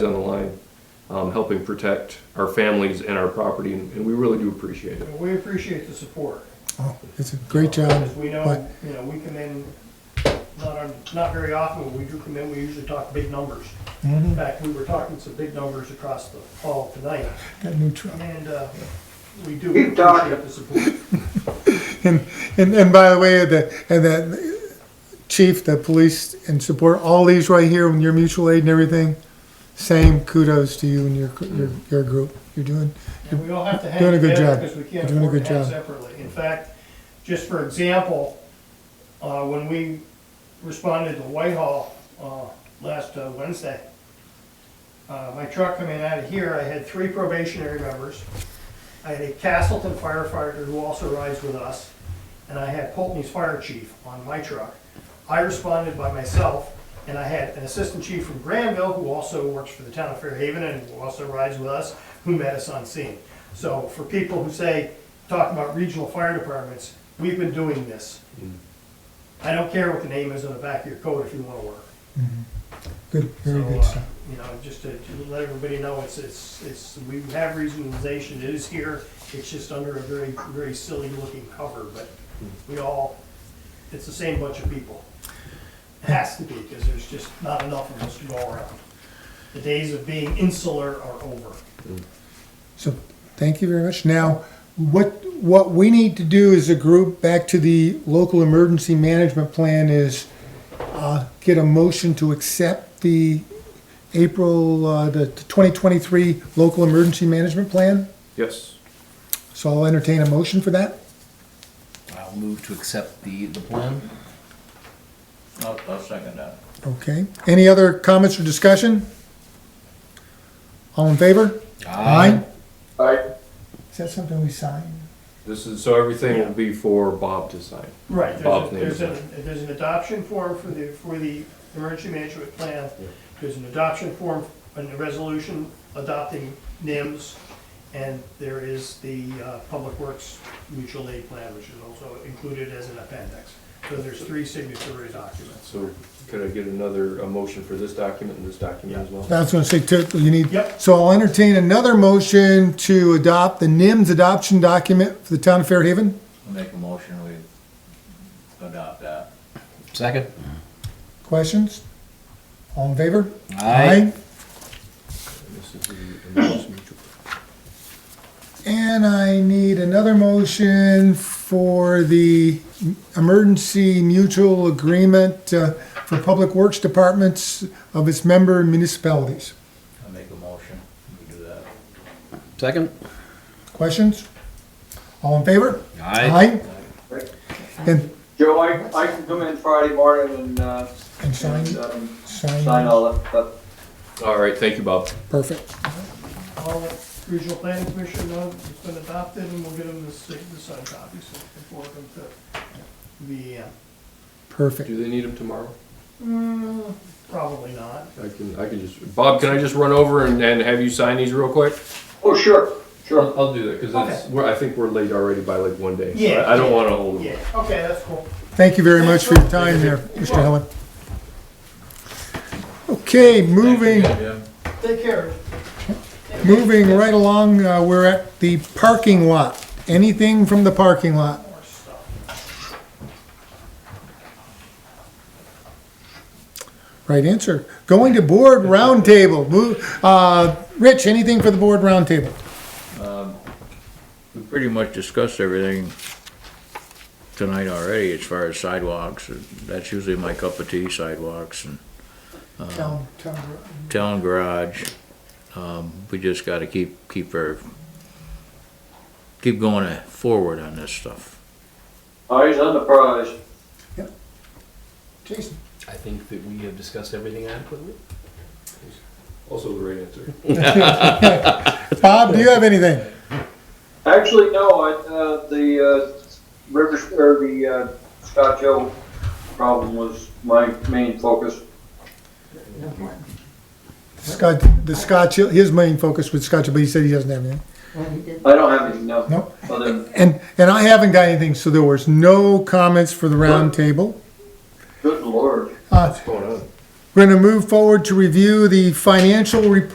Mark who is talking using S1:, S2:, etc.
S1: on the line, um, helping protect our families and our property, and and we really do appreciate it.
S2: Well, We appreciate the support.
S3: Oh, it's a great job.
S2: Because we know,
S3: but-
S2: you know, we come in, not, on- not very often, when we do come in, we usually talk big numbers. In
S3: Mhm,
S2: fact, we were talking some big numbers across the hall tonight,
S3: Got a new truck.
S2: and, uh, we do
S4: Keep talking.
S2: appreciate the support.
S3: And, and, and by the way, the, and that chief, the police and support, all these right here, when your mutual aid and everything, same kudos to you and your, your, your group. You're doing,
S2: And we all have to hang
S3: Doing a good
S2: together
S3: job.
S2: because we can't
S3: You're doing a
S2: afford
S3: good
S2: to act
S3: job.
S2: separately. In fact, just for example, uh, when we responded to Whitehall, uh, last uh, Wednesday, uh, my truck coming out of here, I had three probationary members. I had a Castleton firefighter who also rides with us, and I had Pulteney's fire chief on my truck. I responded by myself, and I had an assistant chief from Granville, who also works for the town of Fairhaven and who also rides with us, who met us on scene. So for people who say, talk about regional fire departments, we've been doing this. I don't care what the name is on the back of your coat if you wanna work.
S3: good, very
S2: So,
S3: good
S2: uh,
S3: stuff.
S2: You know, just to, to let everybody know, it's, it's, it's, we have regionalization, it is here, it's just under a very, very silly looking cover, but we all, it's the same bunch of people. It has to be, because there's just not enough of us to go around. The days of being insular are over.
S3: So, thank you very much. Now, what, what we need to do as a group, back to the local emergency management plan is, uh, get a motion to accept the April, uh, the twenty twenty-three local emergency management plan.
S1: Yes,
S3: So I'll entertain a motion for that.
S5: I'll move to accept the, the plan.
S4: I'll, I'll second that.
S3: Okay. Any other comments or discussion? All in favor?
S1: I,
S3: Is that something we sign?
S1: this is, so everything will be for Bob to sign.
S2: Right, there's,
S1: Bob
S2: a- there's
S1: named
S2: an, there's an adoption form for the, for the emergency management plan. There's an adoption form and a resolution adopting NIMS. And there is the uh, Public Works Mutual Aid Plan, which is also included as an appendix. So there's three signatory documents.
S1: So could I get another, a motion for this document and this document as well?
S3: I was gonna say, too, you need.
S2: Yep.
S3: So I'll entertain another motion to adopt the NIMS adoption document for the town of Fairhaven.
S4: I'll make a motion, we adopt that.
S5: Second?
S3: Questions? All in favor?
S5: Aye.
S1: This is the Emergency Mutual.
S3: And I need another motion for the emergency mutual agreement uh, for public works departments of its member municipalities.
S4: I'll make a motion, we do that.
S5: Second?
S3: Questions? All in favor?
S4: Right.
S3: And,
S4: Joe, I, I can come in Friday morning and, uh,
S3: and sign,
S4: and, um, sign
S3: sign,
S4: all that stuff.
S1: All right, thank you, Bob.
S3: perfect.
S2: All the regional planning commission know it's been adopted and we'll get them the sig- the signed copies before them to the, uh,
S3: Perfect.
S1: Do they need him tomorrow?
S2: mm, probably not.
S1: I can, I can just, Bob, can I just run over and, and have you sign these real quick?
S4: Oh, sure, sure.
S1: I'll I'll do that, because it's, we're, I think we're late already by like one day. so I-
S2: Yeah.
S1: I don't want to hold
S2: Yeah,
S1: him.
S2: okay, that's cool.
S3: Thank you very much for your time there, Mr. Helen. Okay, moving,
S2: Take care.
S3: moving right along, uh, we're at the parking lot. Anything from the parking lot?
S2: More stuff.
S3: Right answer. Going to board roundtable. Move, uh, Rich, anything for the board roundtable?
S4: We pretty much discussed everything tonight already as far as sidewalks. That's usually my cup of tea, sidewalks and
S3: Town, town.
S4: town garage. Um, we just gotta keep, keep our, keep going forward on this stuff.
S6: Eyes Oh, on the prize.
S3: Jason.
S5: I think that we have discussed everything adequately.
S1: Also the right answer.
S3: Bob, do you have anything?
S6: Actually, no, I, uh, the, uh, Rivers, or the, uh, Scott Joe problem was my main focus.
S3: Scott, the Scotch, his main focus was Scotch, but he said he doesn't have anything.
S6: I don't have any, no.
S3: No.
S6: Other than
S3: And, and I haven't got anything, so there was no comments for the roundtable. Uh,
S6: good lord.
S1: What's going on?
S3: We're gonna move forward to review the financial report